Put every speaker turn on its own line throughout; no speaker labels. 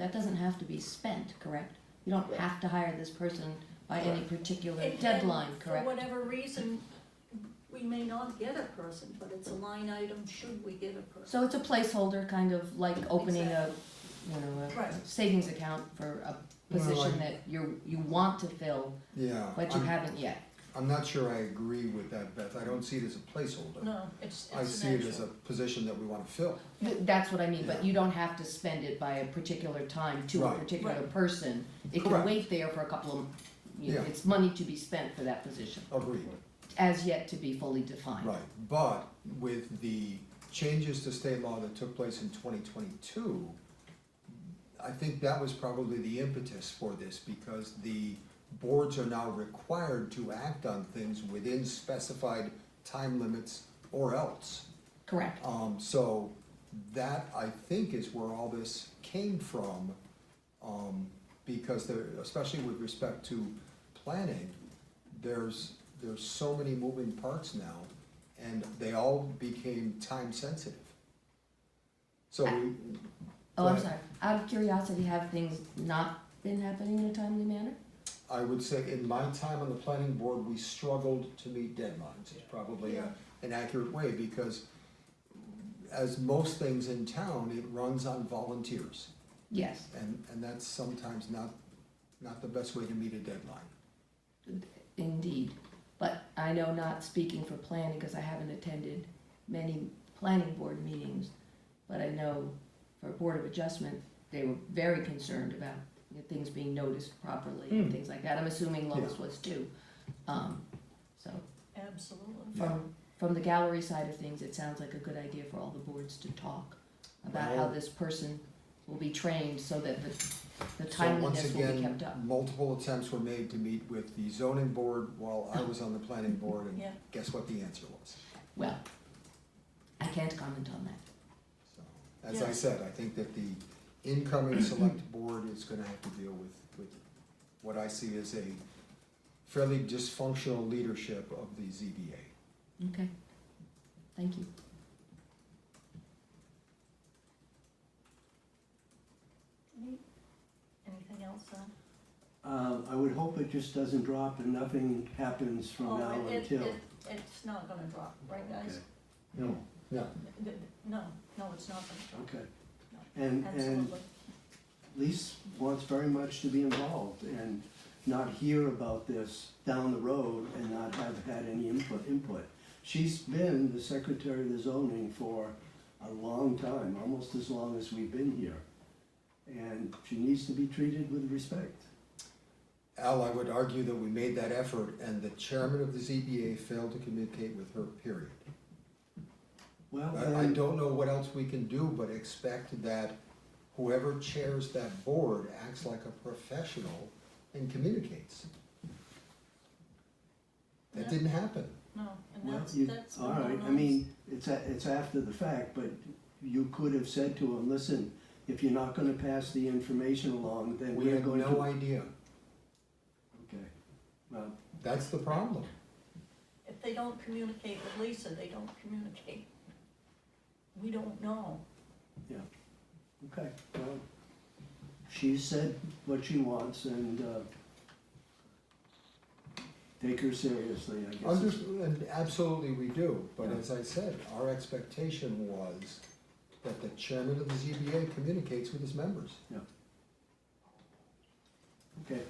that doesn't have to be spent, correct? You don't have to hire this person by any particular
And- and
deadline,
For
correct?
whatever reason, we may not get a person, but it's a line item, should we get a person?
So it's a placeholder, kind of like opening a, you know,
Right.
a savings account for a position
Well, I-
that you're, you want to fill,
Yeah,
but you
I'm,
haven't yet.
I'm not sure I agree with that, Beth, I don't see it as a placeholder.
No, it's,
I
it's
see
an
it as a
actual.
position that we wanna fill,
Th- That's what I mean, but
Yeah.
you don't have to spend it by a particular time to a
Right.
particular
Right.
person. It can
Correct.
wait there for a couple of, you know,
Yeah.
it's money to be spent for that position,
agreed,
as yet to be fully defined.
right, but with the changes to state law that took place in twenty twenty-two, I think that was probably the impetus for this, because the boards are now required to act on things within specified time limits or else.
Correct.
Um, so that I think is where all this came from, um, because there, especially with respect to planning, there's, there's so many moving parts now, and they all became time sensitive. So we,
Oh, I'm
Right.
sorry. Out of curiosity, have things not been happening in a timely manner?
I would say in my time on the planning board, we struggled to meet deadlines, it's probably a, an accurate way, because as most things in town, it runs on volunteers.
Yes.
And, and that's sometimes not, not the best way to meet a deadline.
Indeed, but I know not speaking for planning, because I haven't attended many planning board meetings, but I know for Board of Adjustment, they were very concerned about you know, things being noticed properly and things like that, I'm assuming Lois was too. Um, so,
Absolutely.
from, from the gallery side of things, it sounds like a good idea for all the boards to talk about how
Well-
this person will be trained so that the, the
So once
timeliness will be
again,
kept up.
Multiple attempts were made to meet with the zoning board while I was on the planning board, and
Yeah.
guess what the answer was?
Well, I can't comment on that.
So, As I
Yeah.
said, I think that the incoming select board is gonna have to deal with, with what I see as a fairly dysfunctional leadership of the ZBA.
Okay, thank you.
Any- Anything else on?
Um, I would hope it just doesn't drop and nothing happens from now
Oh, it- it-
until.
it- It's not gonna drop, right guys?
No. No,
Th- th- No, no, it's not gonna drop,
Okay. And, and
absolutely.
Lise wants very much to be involved and not hear about this down the road and not have had any input, input. She's been the secretary of the zoning for a long time, almost as long as we've been here. And she needs to be treated with respect.
Al, I would argue that we made that effort, and the chairman of the ZBA failed to communicate with her, period.
Well,
I, I
then,
don't know what else we can do but expect that whoever chairs that board acts like a professional and communicates. That
Yeah.
didn't happen.
No, and
well,
that's,
you-
that's.
all right, I mean, it's, a- it's after the fact, but you could have said to him, listen, if you're not gonna pass the information along, then
We
we're
had
going to.
no idea.
Okay, well,
That's the problem.
If they don't communicate with Lisa, they don't communicate. We don't know.
Okay, well, she said what she wants and, uh, take her seriously, I guess.
Under,
is-
and absolutely we do, but
Yeah.
as I said, our expectation was that the chairman of the ZBA communicates with his members.
Okay.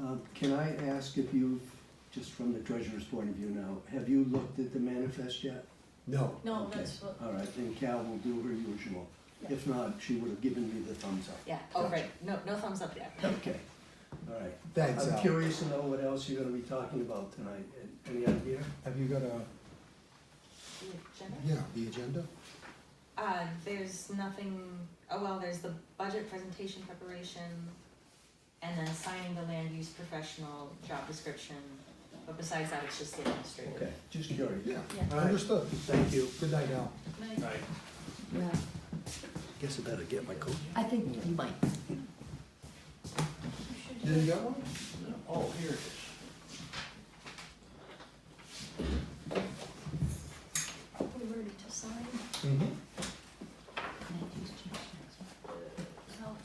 Uh, can I ask if you've, just from the treasurer's point of view now, have you looked at the manifest yet?
No,
No,
Okay.
that's what,
All right, then Cal will do her usual. If not, she would have given me the thumbs up.
Yeah, oh, right, no, no thumbs up yet.
Okay, all right.
thanks,
I'm
Al.
curious to know what else you're gonna be talking about tonight. Any idea?
Have you got a,
Jenna?
yeah, the agenda?
Uh, there's nothing, oh, well, there's the budget presentation preparation, and then assigning the land use professional job description, but besides that, it's just the administrative.
Okay, just curious.
Yeah,
Yeah.
I understood.
Thank you.
Good night, Al.
Nice.
Well,
Guess I better get my coat.
I think you might.
You should
Didn't get one?
Oh, here it is. Mm-hmm.